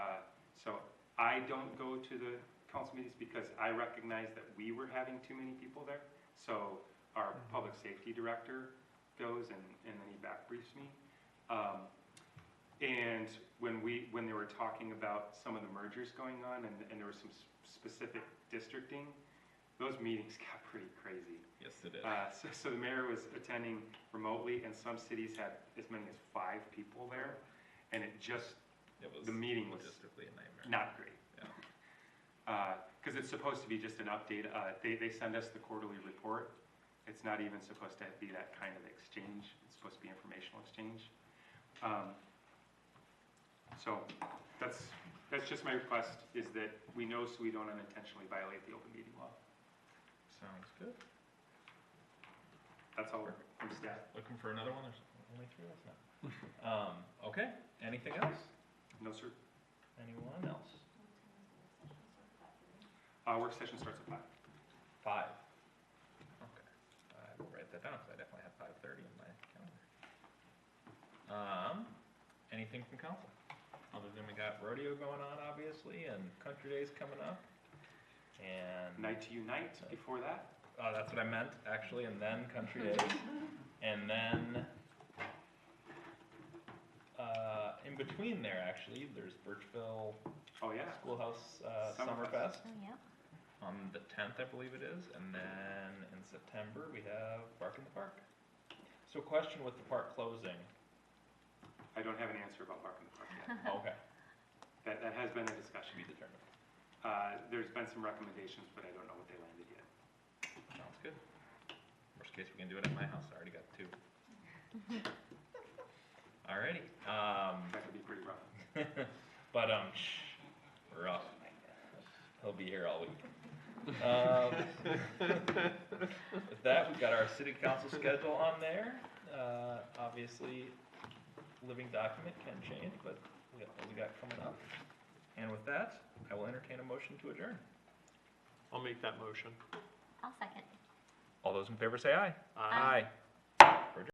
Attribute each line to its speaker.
Speaker 1: Uh, I don't go to the council meetings because I recognize that we were having too many people there. So our public safety director goes and, and then he back briefs me. Um, And when we, when they were talking about some of the mergers going on and, and there was some s- specific districting, those meetings got pretty crazy.
Speaker 2: Yes, it is.
Speaker 1: Uh, so, so the mayor was attending remotely, and some cities had as many as five people there, and it just
Speaker 2: It was
Speaker 1: the meeting was
Speaker 2: logistically a nightmare.
Speaker 1: not great.
Speaker 2: Yeah.
Speaker 1: Because Uh, it's supposed to be just an update. Uh, they, they send us the quarterly report. It's not even supposed to be that kind of exchange. It's supposed to be informational exchange. Um, so that's that's just my request is that we know so we don't unintentionally violate the open meeting law.
Speaker 2: Sounds good.
Speaker 1: That's all from staff.
Speaker 2: Looking for another one? There's only three of us now. Um, okay, anything else?
Speaker 1: No, sir.
Speaker 2: Anyone else?
Speaker 1: Uh, work session starts at five.
Speaker 2: Five. Okay. I will write that down because I definitely have five thirty in my calendar. Um, anything from council? Other than we got rodeo going on, obviously, and country days coming up. And.
Speaker 1: Night to unite before that.
Speaker 2: Uh, that's what I meant, actually, and then Country Days, and then uh, in between there, actually, there's Birchville
Speaker 1: Oh, yeah.
Speaker 2: Schoolhouse uh,
Speaker 1: Summerfest.
Speaker 2: Summerfest
Speaker 3: Oh, yeah.
Speaker 2: on the 10th, I believe it is, and then in September we have Bark in the Park. So, question with the park closing.
Speaker 1: I don't have an answer about Bark in the Park yet.
Speaker 2: Okay,
Speaker 1: That, that has been a
Speaker 2: to
Speaker 1: discussion.
Speaker 2: be determined.
Speaker 1: Uh, there's been some recommendations, but I don't know what they landed yet.
Speaker 2: Sounds good. Worst case, we can do it at my house. I already got two. Alrighty. Um,
Speaker 1: That could be pretty rough.
Speaker 2: but um, shh, rough. He'll be here all week. Um, with that, we've got our city council schedule on there. Uh, obviously, living document can change, but we got what we got coming up. And with that, I will entertain a motion to adjourn.
Speaker 4: I'll make that motion.
Speaker 3: I'll second.
Speaker 2: All those in favor say aye.
Speaker 3: Aye.
Speaker 2: We're adjourned.